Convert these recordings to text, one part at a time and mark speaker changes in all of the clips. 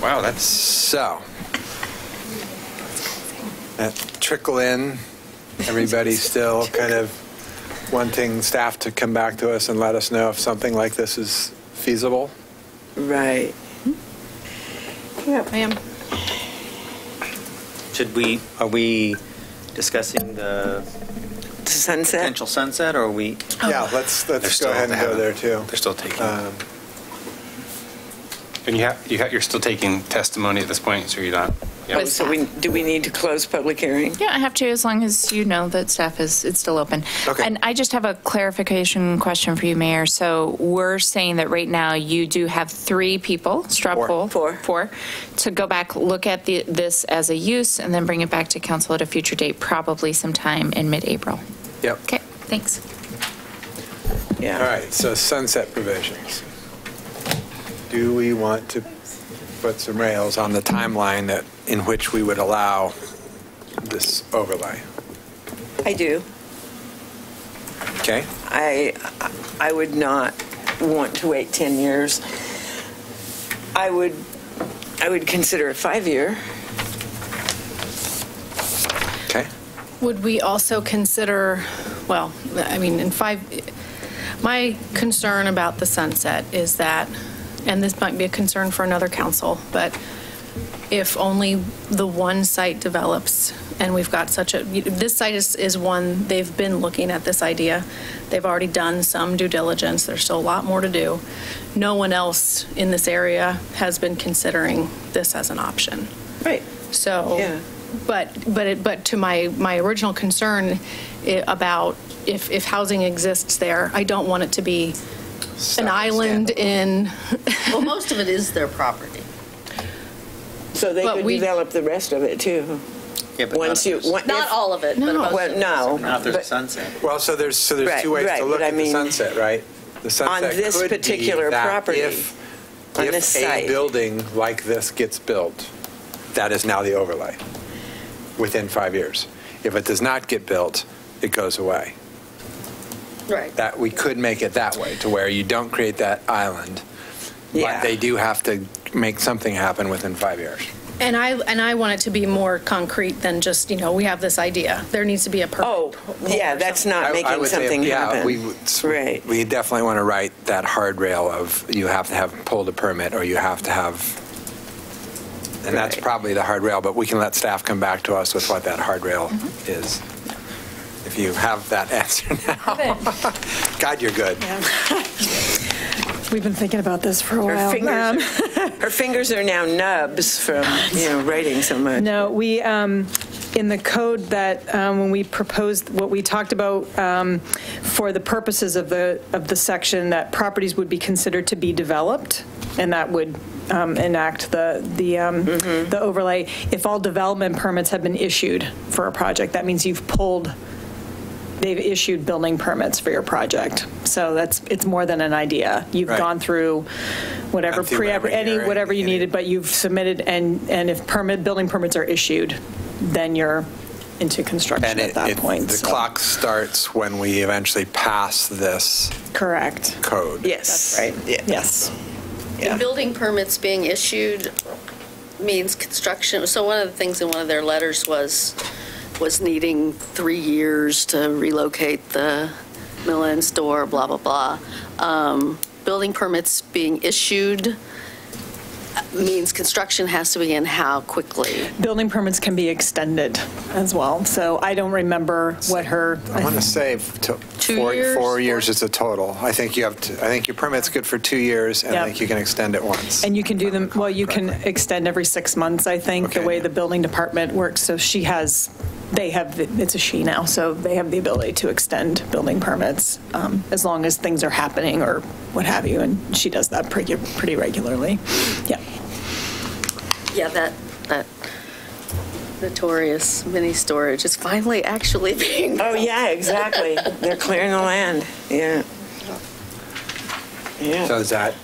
Speaker 1: Wow, that's, so. That trickle in, everybody still kind of wanting staff to come back to us and let us know if something like this is feasible?
Speaker 2: Right.
Speaker 3: Yep. Ma'am.
Speaker 4: Should we, are we discussing the
Speaker 2: Sunset?
Speaker 4: potential sunset, or are we?
Speaker 5: Oh.
Speaker 1: Yeah, let's, let's go ahead and go there too.
Speaker 6: They're still taking,
Speaker 1: Um,
Speaker 6: and you have, you have, you're still taking testimony at this point, so you're not. yeah.
Speaker 3: But-
Speaker 2: Oh, So we, do we need to close public hearing?
Speaker 3: Yeah, I have to, as long as you know that staff is, it's still open.
Speaker 1: Okay.
Speaker 3: And I just have a clarification question for you, Mayor. So we're saying that right now you do have three people, straw
Speaker 1: Four.
Speaker 3: poll.
Speaker 2: Four.
Speaker 3: Four, to go back, look at the, this as a use, and then bring it back to council at a future date, probably sometime in mid-April.
Speaker 1: Yep.
Speaker 3: Okay, thanks.
Speaker 2: Yeah.
Speaker 1: All right, so sunset provisions. Do we want to put some rails on the timeline that, in which we would allow this overlay?
Speaker 2: I do.
Speaker 1: Okay?
Speaker 2: I, I would not want to wait 10 years. I would, I would consider a five-year.
Speaker 1: Okay?
Speaker 5: Would we also consider, well, I mean, in five, my concern about the sunset is that, and this might be a concern for another council, but if only the one site develops, and we've got such a, this site is, is one, they've been looking at this idea. They've already done some due diligence. There's still a lot more to do. No one else in this area has been considering this as an option.
Speaker 2: Right. Yeah.
Speaker 5: So, but, but, it- but to my, my original concern i- about if, if housing exists there, I don't want it to be an island in,
Speaker 7: Well, most of it is their property.
Speaker 2: So they
Speaker 5: But
Speaker 2: could
Speaker 5: we-
Speaker 2: develop the rest of it, too.
Speaker 4: Yeah, but not
Speaker 2: Once
Speaker 4: if
Speaker 2: you,
Speaker 4: there's-
Speaker 2: one-
Speaker 7: Not
Speaker 2: if-
Speaker 7: all of it, but most of
Speaker 2: Well,
Speaker 7: it.
Speaker 2: no.
Speaker 4: Not if there's a
Speaker 2: but-
Speaker 4: sunset.
Speaker 1: Well, so there's, so there's
Speaker 2: Right,
Speaker 1: two ways
Speaker 2: right,
Speaker 1: to
Speaker 2: but
Speaker 1: look
Speaker 2: I
Speaker 1: at the
Speaker 2: mean-
Speaker 1: sunset, right? The sunset
Speaker 2: this
Speaker 1: could be
Speaker 2: particular
Speaker 1: that
Speaker 2: property,
Speaker 1: if-
Speaker 2: on this
Speaker 1: If a
Speaker 2: site.
Speaker 1: building like this gets built, that is now the overlay, within five years. If it does not get built, it goes away.
Speaker 7: Right.
Speaker 1: That, we could make it that way, to where you don't create that island, but
Speaker 2: Yeah.
Speaker 1: they do have to make something happen within five years.
Speaker 5: and I, and I want it to be more concrete than just, you know, we have this idea. There needs to be a permit.
Speaker 2: Oh, yeah, that's not
Speaker 1: I- I
Speaker 2: making
Speaker 1: would say,
Speaker 2: something
Speaker 1: Yeah, we,
Speaker 2: happen.
Speaker 1: would-
Speaker 2: Right.
Speaker 1: we definitely want to write that hard rail of you have to have pulled a permit or you have to have, and that's
Speaker 2: Right.
Speaker 1: probably the hard rail, but we can let staff come back to us with what that hard rail is. If you have that answer now. God, you're good.
Speaker 8: We've been thinking about this for a
Speaker 2: Her
Speaker 8: while. Um,
Speaker 2: fingers, her fingers are now nubs from, you know, writing so much.
Speaker 8: No, we, um, in the code that, um, when we proposed, what we talked about um, for the purposes of the, of the section, that properties would be considered to be developed, and that would um, enact the, the um, the overlay. If all development permits have been issued for a project, that means you've pulled, they've issued building permits for your project. So that's, it's more than an idea. You've
Speaker 1: Right.
Speaker 8: gone through whatever
Speaker 1: Gone through
Speaker 8: pre,
Speaker 1: every
Speaker 8: any,
Speaker 1: hearing,
Speaker 8: whatever you
Speaker 1: any-
Speaker 8: needed, but you've submitted, and, and if permit, building permits are issued, then you're into construction
Speaker 1: And
Speaker 8: at
Speaker 1: it,
Speaker 8: that
Speaker 1: it-
Speaker 8: point.
Speaker 1: the
Speaker 8: so-
Speaker 1: clock starts when we eventually pass this
Speaker 8: Correct.
Speaker 1: code.
Speaker 2: Yes.
Speaker 8: Right?
Speaker 2: Yeah.
Speaker 8: Yes.
Speaker 7: The building permits being issued means construction, so one of the things in one of their letters was, was needing three years to relocate the mill end store, blah, blah, blah. Um, Building permits being issued means construction has to begin how quickly?
Speaker 8: Building permits can be extended as well, so I don't remember what her,
Speaker 1: I want to say f- to-
Speaker 7: Two
Speaker 1: four,
Speaker 7: years?
Speaker 1: four years is the total. I think you have, to- I think your permit's good for two years, and I
Speaker 8: Yep.
Speaker 1: think you can extend it once.
Speaker 8: and you can do them, well, you can extend every six months, I think, the
Speaker 1: Okay,
Speaker 8: way
Speaker 1: yeah.
Speaker 8: the building department works, so she has, they have, the- it's a she now, so they have the ability to extend building permits, um, as long as things are happening or what have you, and she does that pretty pretty regularly. Yeah.
Speaker 7: Yeah, that, that notorious mini storage is finally actually being
Speaker 2: Oh, yeah, exactly. They're clearing the land, yeah.
Speaker 1: So
Speaker 2: Yeah,
Speaker 1: does that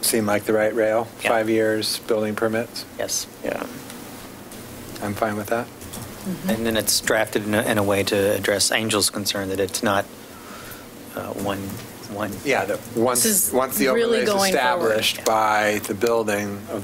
Speaker 1: seem like the right rail? Five years, building permits?
Speaker 4: Yes.
Speaker 2: yeah.
Speaker 1: I'm fine with that.
Speaker 4: Mm-hmm. And then it's drafted in a, in a way to address Angel's concern that it's not uh, one, one
Speaker 1: Yeah, that
Speaker 5: This
Speaker 1: once,
Speaker 5: is
Speaker 1: once the overlay
Speaker 5: really
Speaker 1: is
Speaker 5: going forward.
Speaker 1: established by the building of